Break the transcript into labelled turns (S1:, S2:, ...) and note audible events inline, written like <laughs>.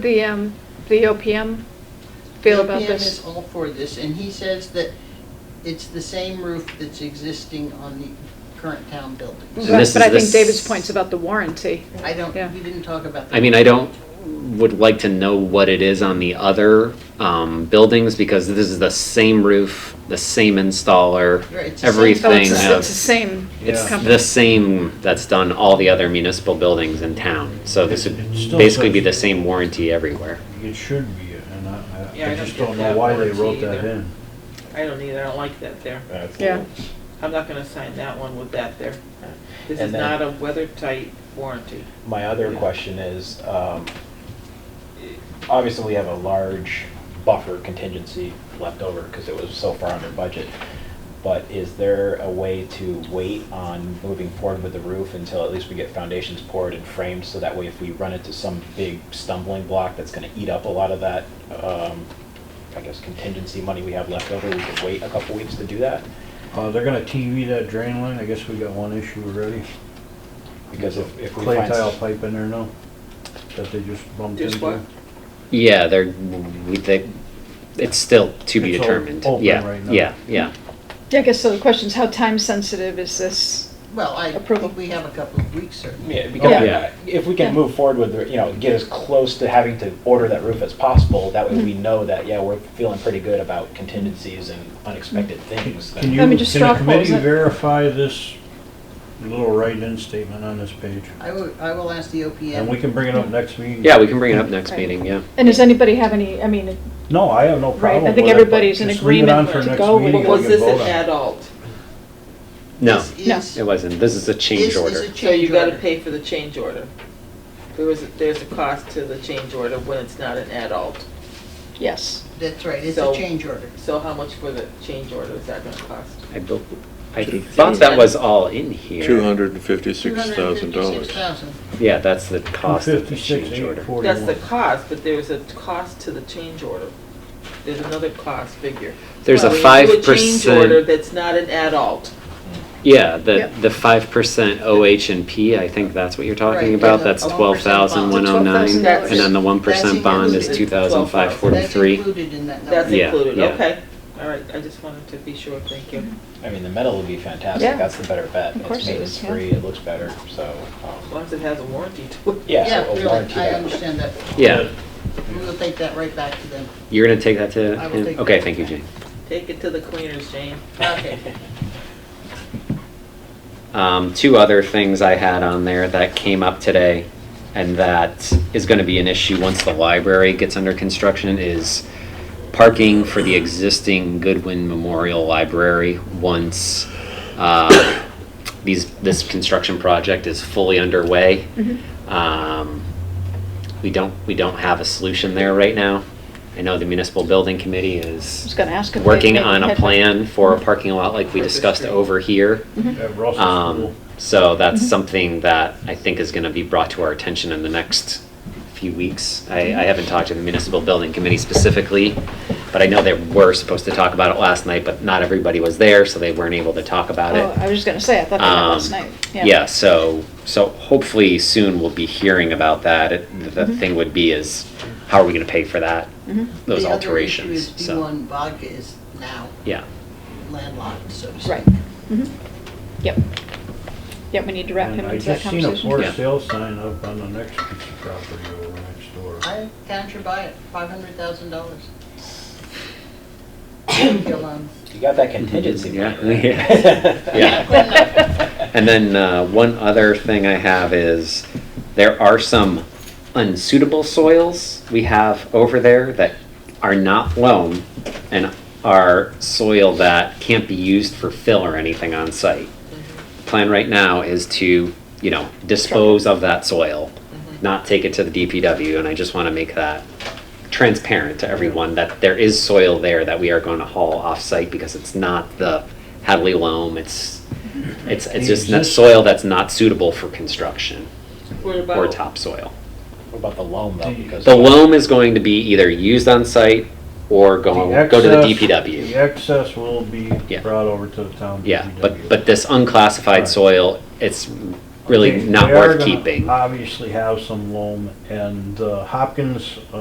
S1: The, um, the OPM feel about
S2: LPM is
S1: this?
S2: all for this, and he says that it's the same roof that's existing on the current town buildings.
S3: So this
S1: But I
S3: is-
S1: think
S3: this-
S1: David's point's about the warranty.
S2: I don't,
S1: Yeah.
S2: we didn't talk about that.
S3: I mean, I don't, would like to know what it is on the other um, buildings, because this is the same roof, the same installer,
S2: Right, it's the same-
S1: Oh, it's
S3: everything.
S1: the s-
S3: of-
S1: It's the same
S3: It's
S1: company.
S3: the same that's done all the other municipal buildings in town, so this would
S4: It's still
S3: basically be the
S4: such-
S3: same warranty everywhere.
S4: It should be, and I,
S5: Yeah,
S4: I-
S5: I
S4: I
S5: don't
S4: just
S5: get
S4: don't
S5: that
S4: know why they
S5: warranty
S4: wrote that
S5: either.
S4: in.
S5: I don't either, I don't like that there.
S1: Yeah,
S5: I'm not gonna sign that one with that there. This is
S6: And then-
S5: not a weather tight warranty.
S6: My other question is, um, obviously, we have a large buffer contingency left over because it was so far under budget. But is there a way to wait on moving forward with the roof until at least we get foundations poured and framed? So that way, if we run into some big stumbling block that's going to eat up a lot of that, um, I guess, contingency money we have left over, we could wait a couple weeks to do that?
S4: Uh, they're gonna TV that drain line, I guess we got one issue already.
S6: Because if if we
S4: Clay
S6: find.
S4: tile pipe in there now, that they just bumped into.
S5: Just what?
S3: Yeah, they're, we, they, it's still to be
S4: It's all
S3: determined.
S4: open
S3: Yeah,
S4: right now.
S3: yeah, yeah.
S1: Yeah, I guess so the question's how time sensitive is this?
S2: <laughs> Well, I
S1: Approval.
S2: think we have a couple of weeks, certainly.
S6: Yeah, because
S1: Yeah.
S3: Yeah.
S6: if we can move forward with, the- you know, get as close to having to order that roof as possible, that way we
S1: Mm-hmm.
S6: know that, yeah, we're feeling pretty good about contingencies and unexpected things.
S4: Can you,
S1: Let
S4: can
S1: me just
S4: the
S1: straw poll
S4: committee
S1: it.
S4: verify this little write-in statement on this page?
S2: I will, I will ask the
S4: And we
S2: OPM.
S4: can bring it up next meeting.
S3: Yeah, we can bring it up next
S1: Right.
S3: meeting, yeah.
S1: And does anybody have any, I mean,
S4: No, I have no
S1: Right,
S4: problem
S1: I
S4: with it.
S1: think
S4: but
S1: everybody's in
S4: just leave it on
S1: agreement
S4: for
S1: to
S4: next
S1: go with
S4: meeting
S1: it.
S4: and
S1: Well,
S5: Was
S4: we can
S5: this
S4: vote
S5: an
S4: on it.
S5: adult?
S3: No,
S2: This
S1: No.
S2: is-
S3: it wasn't. This is a
S2: this
S3: change
S2: is
S3: order.
S2: a
S5: So you
S2: change
S5: gotta
S2: order.
S5: pay for the change order. There was, there's a cost to the change order when it's not an adult.
S1: yes.
S2: That's right, it's a
S5: So-
S2: change order.
S5: So how much for the change order is that gonna cost?
S3: I bel- I thought that was all in here.
S7: Two hundred and fifty-six thousand dollars.
S2: $256,000.
S3: Yeah, that's the cost of the
S4: 256,
S3: change order.
S4: 841.
S5: That's the cost, but there's a cost to the change order. There's another cost figure.
S3: There's a
S5: When you do
S3: five
S5: Change order
S3: percent,
S5: that's not an adult.
S3: yeah, the,
S1: Yep.
S3: the five percent OH and P, I think that's what you're
S2: Right,
S3: talking
S2: yeah,
S3: about,
S2: the
S3: that's
S2: 1%
S3: twelve thousand one oh nine.
S1: $12,000.
S3: And then the one
S2: That's
S3: percent bond is two
S5: included.
S3: thousand five
S2: That's
S3: forty-three.
S2: included in that
S5: That's
S2: number.
S3: Yeah,
S5: included,
S3: yeah.
S5: okay. All right, I just wanted to be sure, thank you.
S6: I mean, the metal would be
S1: Yeah.
S6: fantastic, that's the better bet.
S1: Of course
S6: It's
S1: it is, yeah.
S6: maintenance-free, it looks better, so,
S5: As
S6: um,
S5: long as it has a warranty <laughs> to it.
S6: yeah, so
S2: really,
S6: a warranty.
S2: I
S6: that-
S2: understand that.
S3: Yeah,
S2: We will take that right back to them.
S3: you're gonna take that to
S2: I will
S3: him?
S2: take
S3: Okay,
S2: that.
S3: thank you, Jane.
S5: Take it to the cleaners, Jane.
S2: Okay.
S3: Um, two other things I had on there that came up today and that is gonna be an issue once the library gets under construction is parking for the existing Goodwin Memorial Library once, uh, these, this construction project is fully underway. Um, we don't, we don't have a solution there right now. I know the municipal building committee
S1: I
S3: is
S1: was gonna ask if. they
S3: working
S1: maybe
S3: on a
S1: had-
S3: plan for a parking lot like we
S5: For the
S3: discussed
S5: street.
S3: over here.
S4: At Russell's
S3: Um,
S4: School.
S3: so that's something that I think is gonna be brought to our attention in the next few weeks. I, I haven't talked to the municipal building committee specifically, but I know they were supposed to talk about it last night, but not everybody was there, so they weren't able to talk about
S1: Oh,
S3: it.
S1: I was just gonna say, I thought that was last
S3: Um,
S1: night.
S3: Yeah, so, so hopefully soon we'll be hearing about that. It- The thing would be is, how are we gonna pay for that,
S1: Mhm.
S3: those
S2: The other issue
S3: alterations,
S2: is
S3: so,
S2: B1 vodka is now
S3: yeah.
S2: landlocked, so to speak.
S1: Right. Mhm. Yep. Yep, we need to wrap
S4: And
S1: him into that
S4: I just seen a for
S1: conversation.
S3: Yeah.
S4: sale sign up on the next piece of property over next door.
S2: I can't you buy it, five hundred thousand dollars. Well,
S6: You got that contingency
S3: Yeah,
S6: money, right?
S3: yeah. Yeah. And then uh, one other thing I have is, there are some unsuitable soils we have over there that are not loam and are soil that can't be used for fill or anything on site. Plan right now is to, you know, dispose of that soil, not take it to the DPW, and I just want to make that transparent to everyone that there is soil there that we are going to haul off-site because it's not the Hadley loam, it's, it's, it's just that soil that's not suitable for construction
S5: What
S3: or
S5: about,
S3: topsoil.
S6: What about the loan though? Because
S3: The loam is going to be either used on-site or go, go to the
S4: excess- The
S3: DPW.
S4: excess will be
S3: Yeah.
S4: brought over to the town DPW.
S3: Yeah, but, but this
S4: Right.
S3: unclassified soil, it's really
S4: They-
S3: not
S4: they are
S3: worth
S4: gonna
S3: keeping.
S4: Obviously have some loam, and uh, Hopkins